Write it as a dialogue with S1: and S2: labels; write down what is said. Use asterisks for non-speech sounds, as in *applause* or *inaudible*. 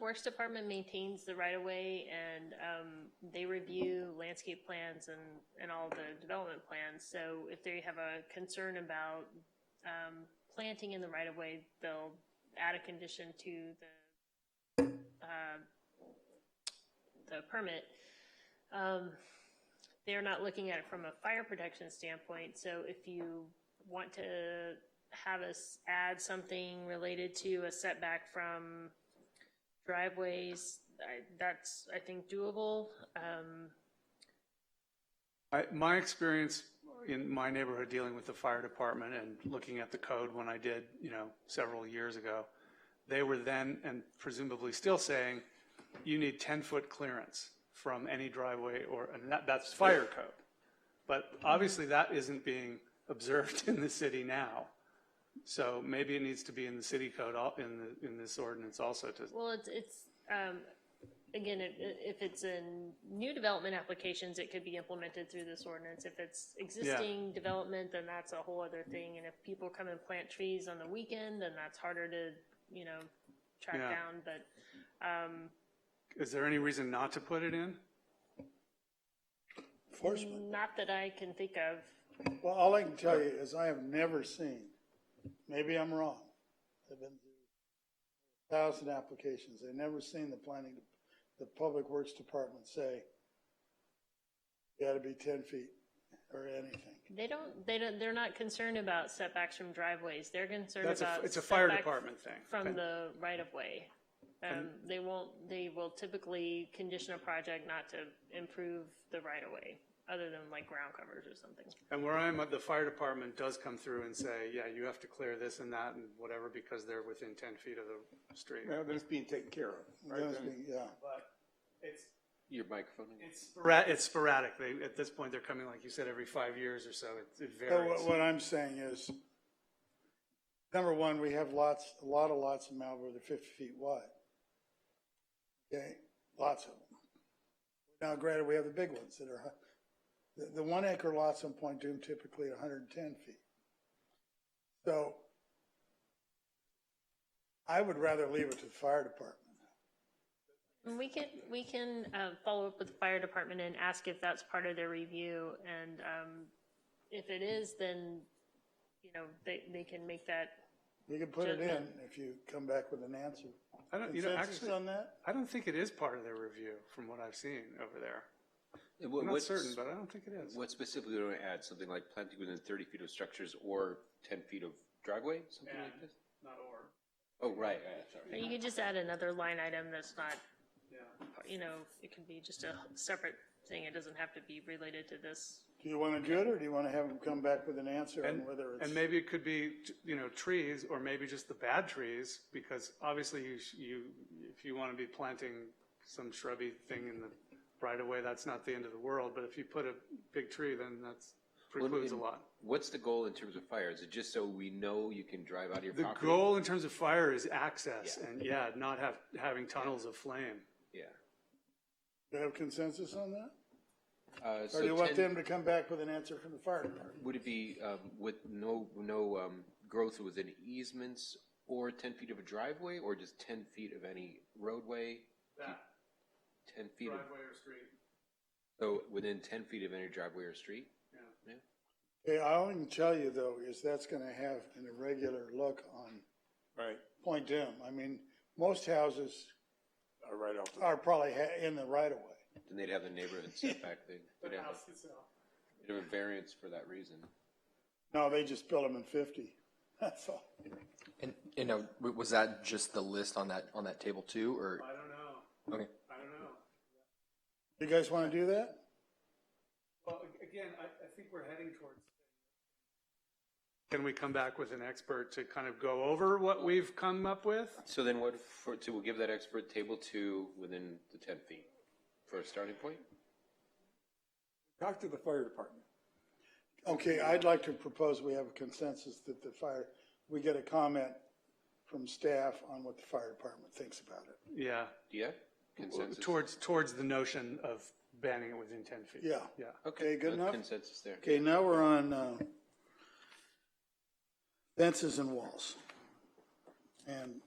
S1: Works Department maintains the right of way and, um, they review landscape plans and, and all the development plans. So if they have a concern about, um, planting in the right of way, they'll add a condition to the, uh, the permit. Um, they're not looking at it from a fire protection standpoint, so if you want to have us add something related to a setback from driveways, I, that's, I think, doable. Um,
S2: I, my experience in my neighborhood dealing with the fire department and looking at the code when I did, you know, several years ago, they were then and presumably still saying, you need ten-foot clearance from any driveway or, and that, that's fire code. But obviously that isn't being observed *laughs* in the city now. So maybe it needs to be in the city code, al- in the, in this ordinance also to,
S1: Well, it's, it's, um, again, if, if it's in new development applications, it could be implemented through this ordinance. If it's existing development, then that's a whole other thing. And if people come and plant trees on the weekend, then that's harder to, you know, track
S2: Yeah.
S1: down, but, um,
S2: is there any reason not to put it in?
S3: Enforcement.
S1: not that I can think of.
S3: Well, all I can tell you is I have never seen, maybe I'm wrong. I've been through a thousand applications. I've never seen the planning, the public works department say, you gotta be ten feet or anything.
S1: They don't, they don't, they're not concerned about setbacks from driveways. They're concerned
S2: That's a,
S1: about.
S2: it's a fire
S1: setback
S2: department thing.
S1: From the right of way. Um,
S2: And-
S1: they won't, they will typically condition a project not to improve the right of way, other than like ground covers or something.
S2: And where I'm at, the fire department does come through and say, yeah, you have to clear this and that and whatever because they're within ten feet of the street.
S4: Well, then it's being taken care of, right?
S3: Those
S4: Then
S3: being- Yeah,
S2: But it's,
S5: Your microphone.
S2: it's sporadic, it's sporadic. They, at this point, they're coming, like you said, every five years or so. It- It
S3: but what,
S2: varies.
S3: what I'm saying is, number one, we have lots, a lot of lots in Malibu that are fifty feet wide. Okay, lots of them. Now, granted, we have the big ones that are, hu- the, the one acre lots on Point Doom typically at hundred and ten feet. So I would rather leave it to the fire department.
S1: And we can, we can, uh, follow up with the fire department and ask if that's part of their review. And, um, if it is, then, you know, they, they can make that,
S3: You can put it in if you come back with an answer.
S2: I don't, you know,
S3: Consensus
S2: actually,
S3: on that?
S2: I don't think it is part of their review from what I've seen over there. I'm not
S5: What's
S2: certain, but I don't think it is.
S5: What specifically do I add? Something like planting within thirty feet of structures or ten feet of driveway, something like this?
S2: Not or.
S5: Oh, right, right, sorry.
S1: or you could just add another line item that's not,
S2: Yeah.
S1: you know, it can be just a separate thing. It doesn't have to be related to this.
S3: Do you want to do it, or do you want to have them come back with an answer on
S2: And,
S3: whether it's?
S2: and maybe it could be, you know, trees, or maybe just the bad trees, because obviously you, sh- you, if you want to be planting some shrubby thing in the right of way, that's not the end of the world, but if you put a big tree, then that's precludes a lot.
S5: What's the goal in terms of fire? Is it just so we know you can drive out of your
S2: The
S5: property?
S2: goal in terms of fire is access,
S5: Yeah.
S2: and yeah, not have, having tunnels of flame.
S5: Yeah.
S3: Do you have consensus on that?
S5: Uh, so
S3: Or do you want
S5: 10
S3: them to come back with an answer from the fire department?
S5: Would it be, um, with no, no, um, growth within easements or ten feet of a driveway or just ten feet of any roadway? Ten feet of,
S2: or street.
S5: so within ten feet of any driveway or street? Yeah.
S3: Hey, all I can tell you though is that's gonna have an irregular look on
S4: Right,
S3: Point Doom. I mean, most houses
S4: uh, right off. the-
S3: are probably ha- in the right of way.
S5: Then they'd have the neighborhood setback thing. They'd have a- They'd have a variance for that reason.
S3: No, they just built them in fifty. *laughs* That's all.
S6: And, you know, w- was that just the list on that, on that table too, or,
S2: I don't know,
S6: okay?
S2: I don't know.
S3: You guys wanna do that?
S2: Well, a- again, I, I think we're heading towards. Can we come back with an expert to kind of go over what we've come up with?
S5: So then what, for, to, we'll give that expert table two within the ten feet for a starting point?
S4: Talk to the fire department.
S3: Okay, I'd like to propose we have a consensus that the fire, we get a comment from staff on what the fire department thinks about it.
S2: Yeah,
S5: Yeah? Consensus?
S2: towards, towards the notion of banning it within 10 feet.
S3: Yeah.
S2: Yeah.
S3: Okay, good
S5: uh,
S3: enough?
S5: Consensus there.
S3: Okay, now we're on uh, fences and walls. And